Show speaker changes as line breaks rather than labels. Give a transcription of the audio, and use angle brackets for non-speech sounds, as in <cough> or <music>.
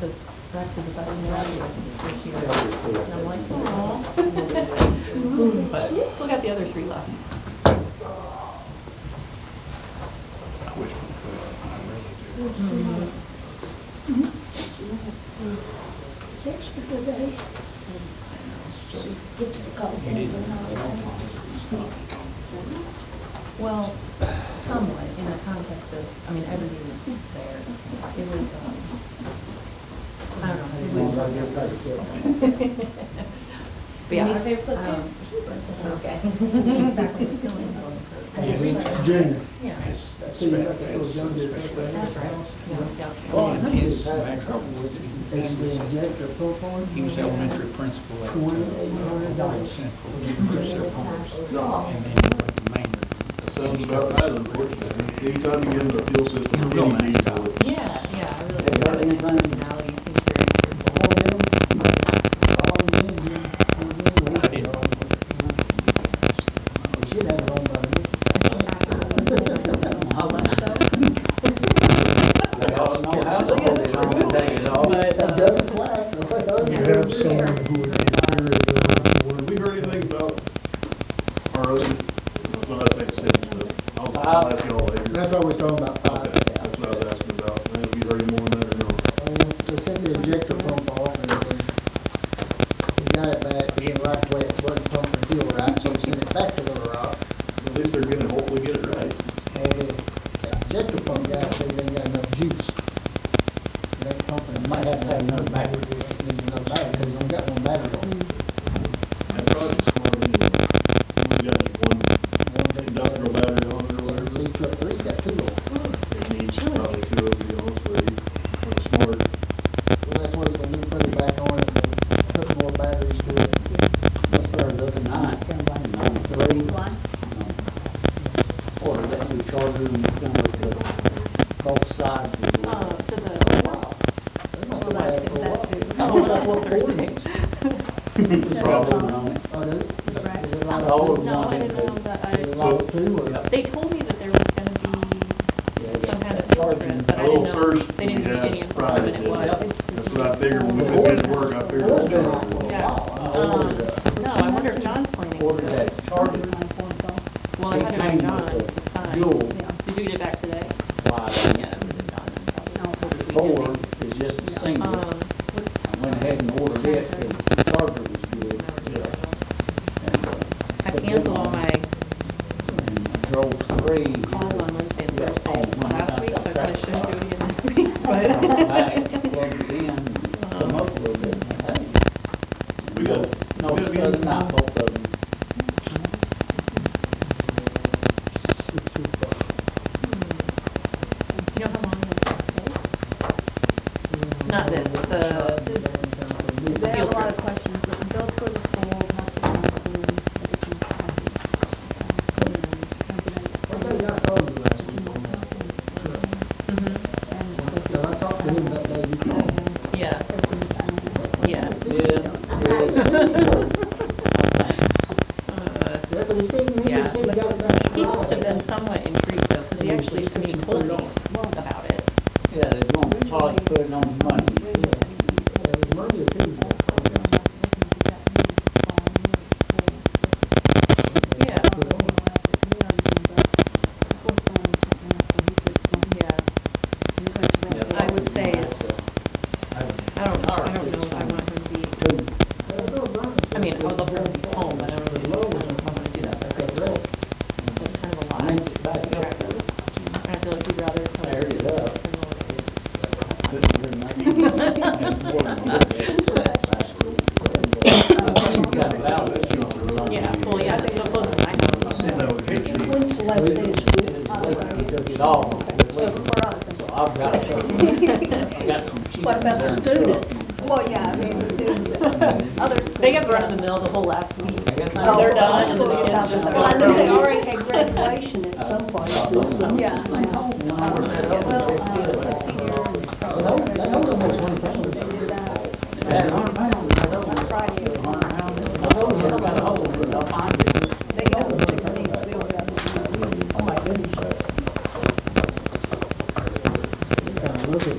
corrected about an hour this year. And I'm like, oh. But still got the other three left.
I wish we could, I really do.
Mm-hmm.
It's extra good, eh? Gets to call them and all
Well, somewhat in the context of, I mean, everything is there. It was, um, I don't know. it was- But yeah,
Any favorite platoon?
um,
Okay.
back when it was still in voting for-
Junior.
Yeah,
It's-
So you got that little young dude
Especially-
right
that's right. Yeah, yeah.
Oh, I
And
think
his
it's had
background
trouble
was-
with it. It's the injector propane.
He was elementary principal at uh,
Twenty, hundred
Brooklyn
dollars.
Central, Crusoe Farms,
No,
and then he mainly.
that sounds about right, unfortunately. Anytime you get into the fuel system,
You're real nice.
Yeah, yeah, I really.
They got
really nice
anything?
personality, seems very cheerful.
All of them, all of them, you know, all of them.
I didn't know.
They should have it on by now.
They all know how to hold it on the day and all.
But,
That
uh,
doesn't apply, so it doesn't.
You
have someone who would consider it a
Have we
word.
heard anything about our other, when I say cities, but I'll, I'll ask y'all later.
That's what we're talking about,
Okay,
five thousand.
that's what I was asking about. Have we heard any more on that or no?
And they sent the injector pump off and then he got it back, he didn't like the way it wasn't pumping fuel right, so he sent it back to Little Rock.
At least they're gonna hopefully get it right.
And the injector pump guy said they ain't got enough juice. They ain't pumping, it might have to have another battery, need another battery, because they don't got one battery on it.
That project's smart anyway. We got just one
One big
industrial
battery.
battery on it or
Well,
whatever.
the C truck three got two on it.
It needs probably two of you, honestly. It's smart.
Well, that's what it's gonna do, put it back on it, and put more batteries to it.
They started looking on, it, kind of like nine, three. Or that we charter them, kind of the both sides. of the-
uh, to the open house.
They're not
Well,
gonna have
that's,
it for a
<laughs> that's
while.
good. Oh, that's just Thursday.
Problem on it.
Oh, do they?
Right.
Is it a lot of
All
two?
of
No, I
them,
didn't know that,
Is it
I,
a lot of two, or?
Yeah.
they told me that there was gonna be some kind of field trip, but I
Well,
didn't know,
first,
they didn't
yeah,
give me any
Friday,
information, it
yeah.
was.
That's what I figured when we did this work, I figured it was charged.
Yeah. Um, No, I wonder if John's planning to
Ordered
go.
that charter,
Well, I had it on John to sign.
fuel,
Did you get it back today?
why,
Yeah, it was in John, probably over the
four
weekend.
is just a
Um,
single.
what-
I went ahead and ordered it, the charter was good. and, uh,
I canceled all my
And I drove three.
calls on Wednesday and
Yeah, Oh,
Thursday
all one.
last week, so I probably shouldn't do it again this week,
<laughs> Come
but.
back, Plugged it in, come up a little bit, and I think
We got,
No,
we
it's
got
not, not both of them.
You know how long it'll take? Not this, the,
There are a lot of questions, but don't go to school, not to the school, education policy.
Well, they got called the last week on that.
Mm-hmm.
Because I talked to him that day you called.
yeah, yeah. Uh,
Yeah, but he said, he
Yeah.
said he got it back.
He must have been somewhat intrigued though, because he actually, I mean, told me about it.
Yeah, they're gonna probably put it on Monday.
Yeah, it was Monday or Tuesday.
Yeah, yeah. I would say it's, I don't, I don't know if I want him to be, I mean, I would love for him to be home, but I don't really know if I want to do that. for high school. That's kind of a lot.
I think it's back up there,
And I feel like he'd rather. come
There it is.
from the-
couldn't do nothing. I think you got about it, you know,
Yeah, well, yeah, it's so close to my house.
sent out a picture.
When's the last day of school?
it's like you took it all. So I've got, I've got some cheap.
What about the students?
Well, yeah, I mean, the students, but others.
They got run in the mill the whole last week.
I got
No,
my-
they're done, and the
Well,
kids just.
well,
I know they
run.
already had graduation at some places, so.
Yeah.
Well,
Well, uh, let's see,